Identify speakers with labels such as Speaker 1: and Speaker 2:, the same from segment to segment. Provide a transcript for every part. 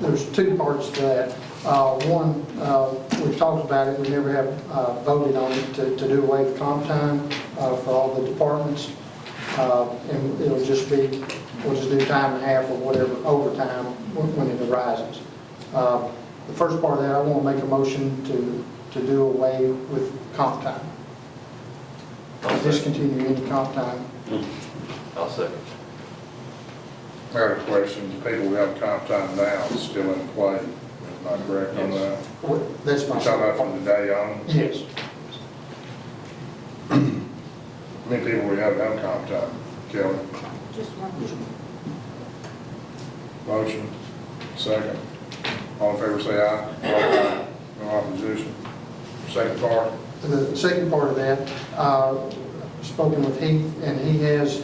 Speaker 1: There's two parts to that. Uh, One, uh, we've talked about it, we never have uh, voted on it to to do away with comp time uh, for all the departments. Uh, And it'll just be, we'll just do time and a half or whatever overtime when when it arises. Uh, The first part of that, I want to make a motion to, to do away with comp time,
Speaker 2: I'll second.
Speaker 1: discontinue any comp time.
Speaker 2: I'll second.
Speaker 3: I got a question, the people who have comp time now is still in play, am I correct on that?
Speaker 1: What- That's my.
Speaker 3: You're talking about from the day on,
Speaker 1: Yes.
Speaker 3: how many people we have have comp time, Kelly?
Speaker 4: Just one.
Speaker 3: Motion, second, all in favor say aye. Aye. No opposition, second part,
Speaker 1: The second part of that, uh, spoken with Heath, and he has,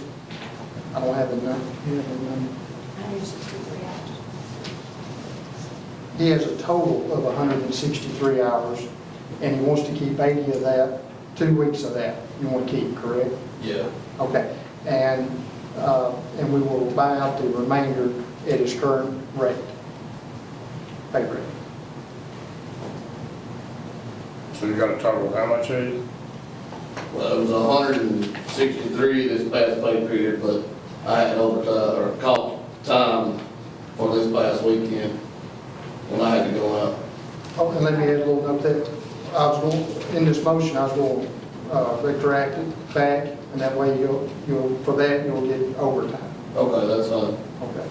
Speaker 1: I don't have the number, he has a number.
Speaker 4: Hundred and sixty-three hours.
Speaker 1: He has a total of 163 hours, and he wants to keep 80 of that, two weeks of that you want to keep, correct?
Speaker 2: Yeah.
Speaker 1: Okay, and, uh, and we will buy out the remainder at his current rate, pay rate.
Speaker 3: so you got a total of how much, Heath?
Speaker 5: Well, it was hundred and sixty-three this past pay period, but I had overtime, or comp time for this past weekend when I had to go out.
Speaker 1: Oh, and let me add a little note that I was going, in this motion, I was going to retract it back, and that way you'll, you'll, for that, you'll get overtime.
Speaker 5: Okay, that's fine.
Speaker 1: Okay.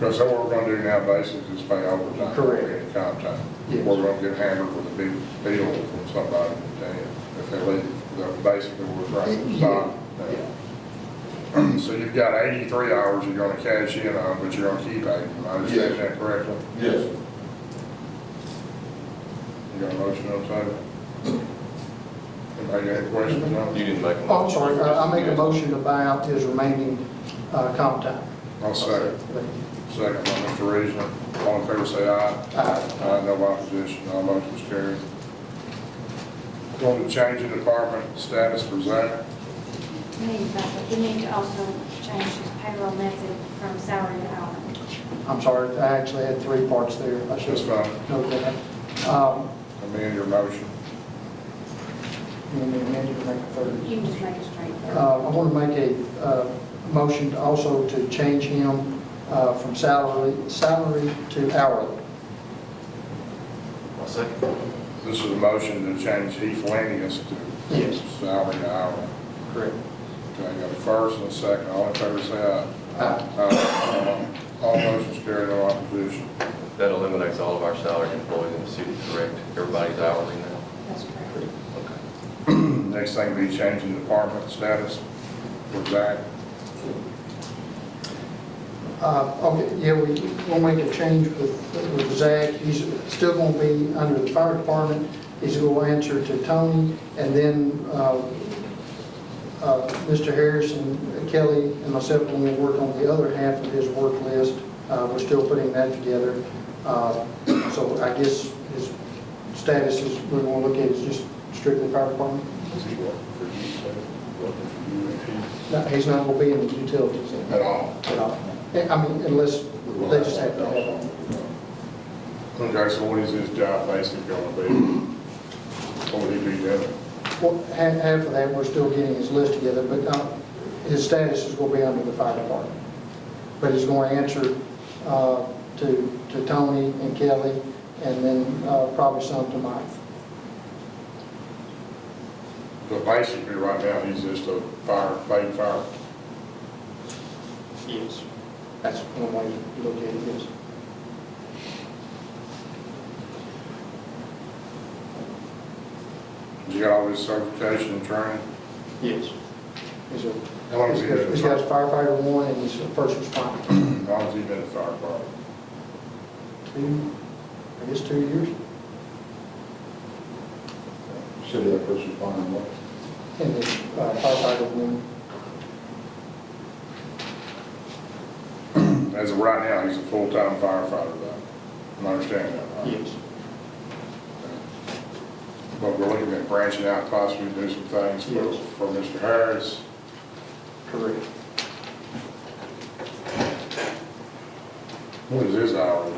Speaker 3: Because what we're gonna do now basically is pay overtime.
Speaker 1: Correct.
Speaker 3: In comp time.
Speaker 1: Yes.
Speaker 3: We're gonna get hammered with a big bill from somebody, and if they leave, they're basically we're right from the start.
Speaker 1: Yeah.
Speaker 3: So you've got 83 hours you're gonna cash in on, but you're gonna keep 80. Am I understanding that correctly?
Speaker 5: Yes.
Speaker 3: You got a motion on the table? Anybody got any questions on
Speaker 2: You
Speaker 3: it?
Speaker 2: didn't make a motion.
Speaker 1: Oh, I'm sorry, I I make a motion to buy out his remaining uh, comp time.
Speaker 3: I'll second. Second by Mr. Reason. All in favor, say aye.
Speaker 1: Aye.
Speaker 3: Aye, no opposition, all motions carried. Going to change the department status for Zach.
Speaker 4: You need, to- you need to also change his payroll method from salary to hourly.
Speaker 1: I'm sorry, I actually had three parts there. I should
Speaker 3: That's fine.
Speaker 1: noted that. Um,
Speaker 3: Amend your motion.
Speaker 1: You want me to amend it or make a third?
Speaker 4: You can just make it straight.
Speaker 1: Uh, I want to make a uh, motion to also to change him uh, from salary, salary to hourly.
Speaker 2: I'll second.
Speaker 3: This is a motion to change Heath Lanius to
Speaker 1: Yes.
Speaker 3: salary to hourly.
Speaker 1: Correct.
Speaker 3: Okay, I got a first and a second, all in favor say aye.
Speaker 1: Aye.
Speaker 3: Aye. All motions carried, no opposition.
Speaker 2: That eliminates all of our salaried employees in the city, correct? Everybody's hourly now?
Speaker 4: That's correct.
Speaker 2: Okay.
Speaker 3: Next thing will be changing department status for Zach.
Speaker 1: Uh, Okay, yeah, we, we'll make a change with, with Zach. He's still going to be under the fire department. He's going to answer to Tony, and then uh, uh, Mr. Harrison, Kelly, and myself, when we work on the other half of his work list, uh, we're still putting that together. Uh, So I guess his status is, we're going to look at is just strictly fire department.
Speaker 3: Is he working for you, sir? Working for you and
Speaker 1: No, He's not going to be in the utilities
Speaker 3: he? At all?
Speaker 1: at all. I mean, unless they just have to have him.
Speaker 3: Okay, so what is his job basically gonna be? What would he be doing?
Speaker 1: Well, half, half of that, we're still getting his list together, but uh, his status is going to be under the fire department. But he's going to answer uh, to, to Tony and Kelly, and then uh, probably some to Mike.
Speaker 3: But basically, right now, he's just a fire, paid fire.
Speaker 1: Yes. That's one way to look at it, yes.
Speaker 3: He's got all his certification and training.
Speaker 1: Yes. He's a,
Speaker 3: How long has he
Speaker 1: he's got-
Speaker 3: been?
Speaker 1: he's got firefighter one, and he's a first responder.
Speaker 3: How long has he been a fire department?
Speaker 1: Two, I guess two years,
Speaker 6: City of first responder, what?
Speaker 1: and the uh, firefighter one,
Speaker 3: As of right now, he's a full-time firefighter, though. Am I understanding that right?
Speaker 1: yes.
Speaker 3: But we're looking at branching out, possibly do some things for,
Speaker 1: Yes.
Speaker 3: for Mr. Harris.
Speaker 1: Correct.
Speaker 3: What is his hourly